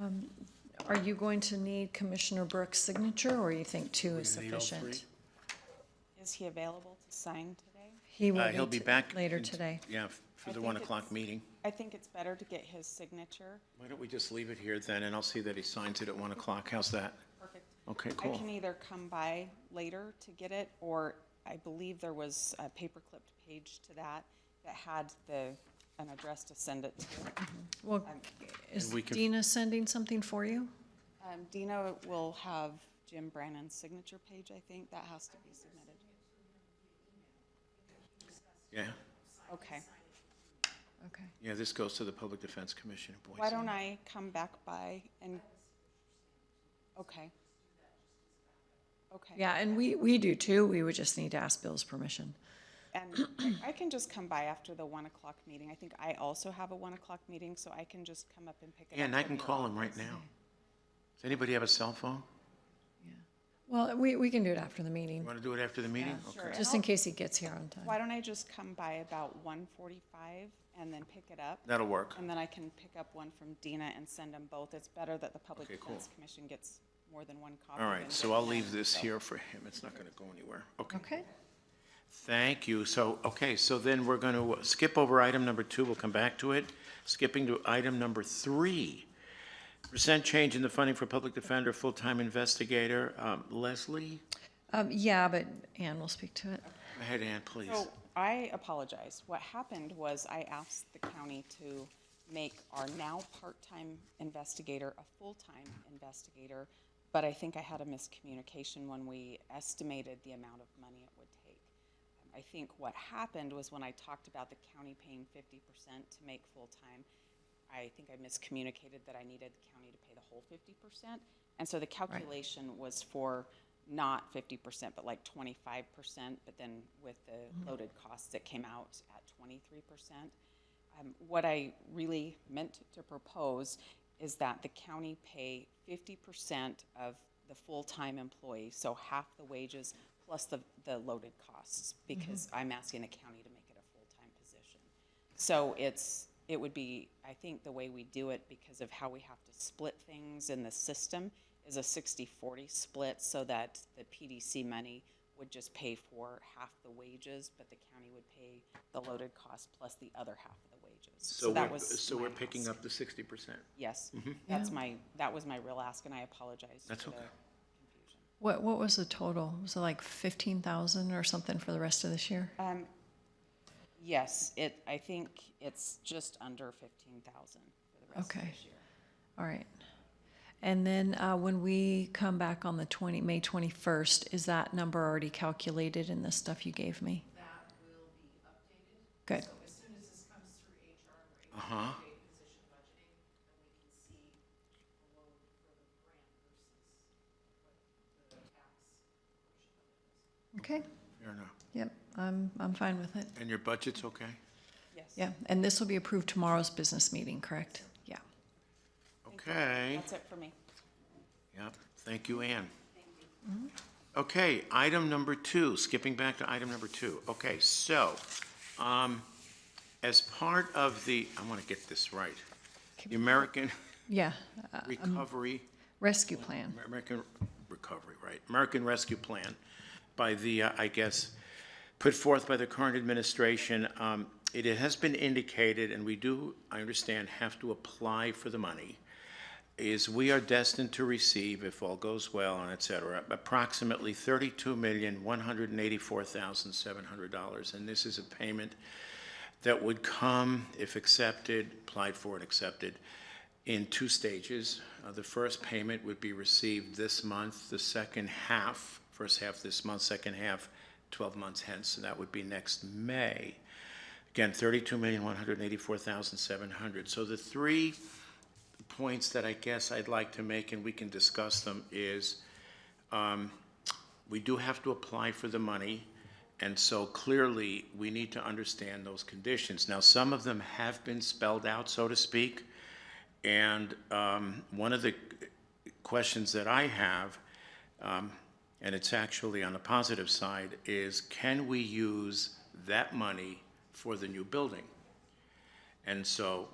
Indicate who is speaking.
Speaker 1: Um, Are you going to need Commissioner Brooks' signature, or you think two is
Speaker 2: We're gonna need all three.
Speaker 1: sufficient?
Speaker 3: Is he available to sign today?
Speaker 1: He will
Speaker 2: Uh, He'll be
Speaker 1: t-
Speaker 2: back.
Speaker 1: Later
Speaker 2: in-
Speaker 1: today.
Speaker 2: Yeah, f- for
Speaker 3: I
Speaker 2: the
Speaker 3: think
Speaker 2: 1 o'clock
Speaker 3: it's-
Speaker 2: meeting.
Speaker 3: I think it's better to get his signature.
Speaker 2: Why don't we just leave it here then, and I'll see that he signs it at 1 o'clock. How's that?
Speaker 3: Perfect.
Speaker 2: Okay,
Speaker 3: I can e-,
Speaker 2: cool.
Speaker 3: either come by later to get it, or I believe there was a paper clipped page to that that had the, an address to send it to.
Speaker 1: Well, is
Speaker 2: we could-
Speaker 1: Dina sending something for you?
Speaker 3: Um, Dina will have Jim Brannan's signature page, I think, that has to be submitted.
Speaker 2: Yeah,
Speaker 3: Okay.
Speaker 1: Okay.
Speaker 2: yeah, this goes to the Public Defense Commission in Boise.
Speaker 3: Why don't I come back by and, okay. Okay.
Speaker 1: Yeah, and we, we do too. We would just need to ask Bill's permission.
Speaker 3: And I- I can just come by after the one o'clock meeting. I think I also have a one o'clock meeting, so I can just come up and pick it up.
Speaker 2: Yeah, and I
Speaker 3: from
Speaker 2: can
Speaker 3: your
Speaker 2: call him right
Speaker 3: office.
Speaker 2: now. Does anybody have a cell phone?
Speaker 1: Well, we, we can do it after the
Speaker 2: You
Speaker 1: meeting,
Speaker 2: want to do it after the meeting?
Speaker 3: Sure.
Speaker 2: Okay.
Speaker 3: and
Speaker 1: just in
Speaker 3: I'll-
Speaker 1: case he gets here on
Speaker 3: Why
Speaker 1: time.
Speaker 3: don't I just come by about one forty-five and then pick it up?
Speaker 2: That'll work.
Speaker 3: And then I can pick up one from Dina and send them both. It's better that the Public
Speaker 2: Okay, cool.
Speaker 3: Defense Commission gets more than one copy.
Speaker 2: All
Speaker 3: than
Speaker 2: right, so
Speaker 3: just
Speaker 2: I'll
Speaker 3: one.
Speaker 2: leave this here for him. It's not going to go anywhere. Okay.
Speaker 1: Okay.
Speaker 2: Thank you. So, okay, so then we're going to skip over item number two, we'll come back to it. Skipping to item number three, percent change in the funding for public defender, full-time investigator. Um, Leslie,
Speaker 1: Um, yeah, but Ann will speak to it.
Speaker 2: go ahead, Ann, please.
Speaker 3: So I apologize. What happened was I asked the county to make our now part-time investigator a full-time investigator, but I think I had a miscommunication when we estimated the amount of money it would take. I think what happened was when I talked about the county paying fifty percent to make full-time, I think I miscommunicated that I needed the county to pay the whole fifty percent. And so the calculation was for not fifty percent, but like twenty-five percent, but then with the loaded costs, it came out at twenty-three percent. Um, what I really meant to propose is that the county pay fifty percent of the full-time employee, so half the wages plus the, the loaded costs, because I'm asking the county to make it a full-time position. So it's, it would be, I think the way we do it, because of how we have to split things in the system, is a 60-40 split, so that the PDC money would just pay for half the wages, but the county would pay the loaded cost plus the other half of the wages.
Speaker 2: So
Speaker 3: that
Speaker 2: we're,
Speaker 3: was
Speaker 2: so we're
Speaker 3: my
Speaker 2: picking
Speaker 3: ask.
Speaker 2: up the sixty percent.
Speaker 3: Yes, that's my, that was my real ask, and I apologize for the
Speaker 2: That's
Speaker 3: confusion.
Speaker 2: okay.
Speaker 1: What, what was the total? Was it like fifteen thousand or something for the rest of this year?
Speaker 3: Um, Yes, it, I think it's just under 15,000 for the rest of
Speaker 1: Okay.
Speaker 3: this year.
Speaker 1: All right. And then, uh, when we come back on the twenty, May twenty-first, is that number already calculated in the stuff you gave me? That will be updated. Good.
Speaker 2: Uh-huh.
Speaker 1: Okay,
Speaker 2: Fair enough.
Speaker 1: yep, I'm, I'm fine with it.
Speaker 2: And your budget's okay?
Speaker 3: Yes.
Speaker 1: Yeah, and this will be approved tomorrow's business meeting, correct? Yeah.
Speaker 2: Okay.
Speaker 3: That's it for me.
Speaker 2: Yep, thank you, Ann. Okay, item number two, skipping back to item number two. Okay, so, um, as part of the, I want to get this right, the American
Speaker 1: Yeah, uh,
Speaker 2: Recovery,
Speaker 1: rescue plan.
Speaker 2: American Recovery, right, American Rescue Plan by the, uh, I guess, put forth by the current administration, um, it has been indicated, and we do, I understand, have to apply for the money is we are destined to receive, if all goes well and et cetera, approximately thirty-two million, one hundred and eighty-four thousand, seven hundred dollars. And this is a payment that would come, if accepted, applied for and accepted, in two stages. Uh, the first payment would be received this month, the second half, first half this month, second half twelve months hence, and that would be next May. Again, thirty-two million, one hundred and eighty-four thousand, seven hundred. So the three points that I guess I'd like to make, and we can discuss them, is um, we do have to apply for the money, and so clearly, we need to understand those conditions. Now, some of them have been spelled out, so to speak, and um, one of the questions that I have, um, and it's actually on the positive side, is can we use that money for the new building? And so